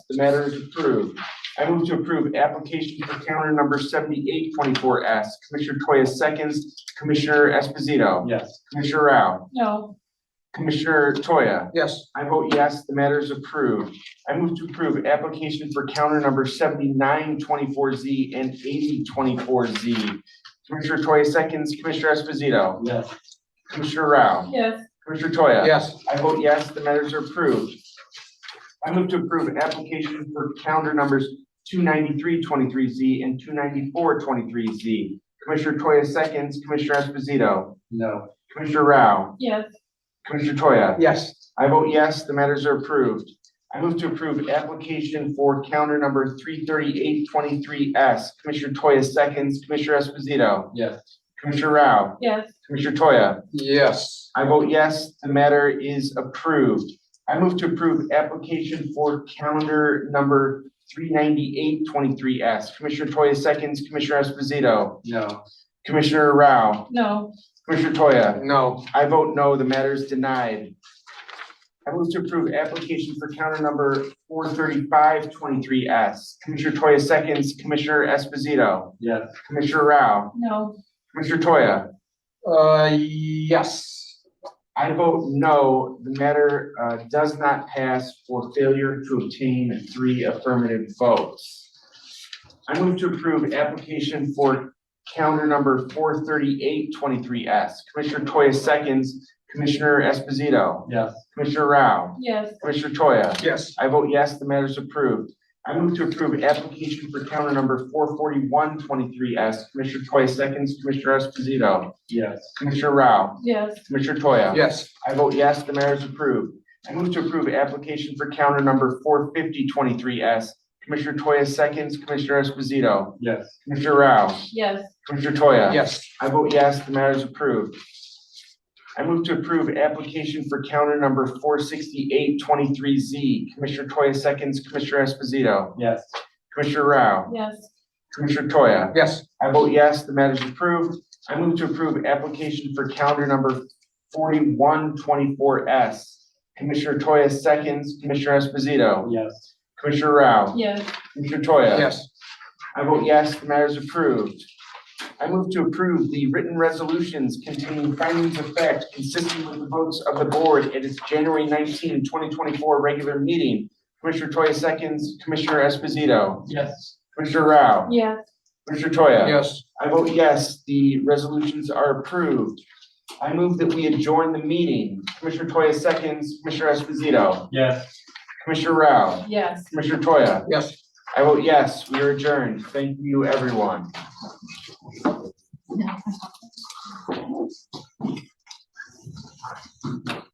The matter is approved. I move to approve application for calendar number seventy-eight twenty-four S. Commissioner Toya seconds, Commissioner Esposito, Yes. Commissioner Rao, no, Commissioner Toya. Yes. I vote yes, the matter is approved. I move to approve application for counter number seventy-nine twenty-four Z and eighty twenty-four Z. Commissioner Toya seconds, Commissioner Esposito, Yes. Commissioner Rao, yes, Commissioner Toya. Yes. I vote yes, the matters are approved. I move to approve application for calendar numbers two ninety-three twenty-three Z and two ninety-four twenty-three Z. Commissioner Toya seconds, Commissioner Esposito, No. Commissioner Rao, yes, Commissioner Toya. Yes. I vote yes, the matters are approved. I move to approve application for counter number three thirty-eight twenty-three S. Commissioner Toya seconds, Commissioner Esposito, Yes. Commissioner Rao, yes, Commissioner Toya. Yes. I vote yes, the matter is approved. I move to approve application for calendar number three ninety-eight twenty-three S. Commissioner Toya seconds, Commissioner Esposito, No. Commissioner Rao, no, Commissioner Toya. No. I vote no, the matter is denied. I move to approve application for counter number four thirty-five twenty-three S. Commissioner Toya seconds, Commissioner Esposito, Yes. Commissioner Rao, no, Commissioner Toya. Uh, yes. I vote no, the matter uh, does not pass for failure to obtain three affirmative votes. I move to approve application for calendar number four thirty-eight twenty-three S. Commissioner Toya seconds, Commissioner Esposito, Yes. Commissioner Rao, yes, Commissioner Toya. Yes. I vote yes, the matter is approved. I move to approve application for counter number four forty-one twenty-three S. Commissioner Toya seconds, Commissioner Esposito, Yes. Commissioner Rao, yes, Commissioner Toya. Yes. I vote yes, the matter is approved. I move to approve application for counter number four fifty twenty-three S. Commissioner Toya seconds, Commissioner Esposito, Yes. Commissioner Rao, yes, Commissioner Toya. Yes. I vote yes, the matter is approved. I move to approve application for counter number four sixty-eight twenty-three Z. Commissioner Toya seconds, Commissioner Esposito, Yes. Commissioner Rao, yes, Commissioner Toya. Yes. I vote yes, the matter is approved. I move to approve application for calendar number forty-one twenty-four S. Commissioner Toya seconds, Commissioner Esposito, Yes. Commissioner Rao, yes, Commissioner Toya. Yes. I vote yes, the matter is approved. I move to approve the written resolutions containing findings of fact consistent with the votes of the board at its January 19, 2024 regular meeting. Commissioner Toya seconds, Commissioner Esposito, Yes. Commissioner Rao, yes, Commissioner Toya. Yes. I vote yes, the resolutions are approved. I move that we adjourn the meeting. Commissioner Toya seconds, Commissioner Esposito, Yes. Commissioner Rao, yes. Commissioner Toya. Yes. I vote yes, we are adjourned. Thank you, everyone.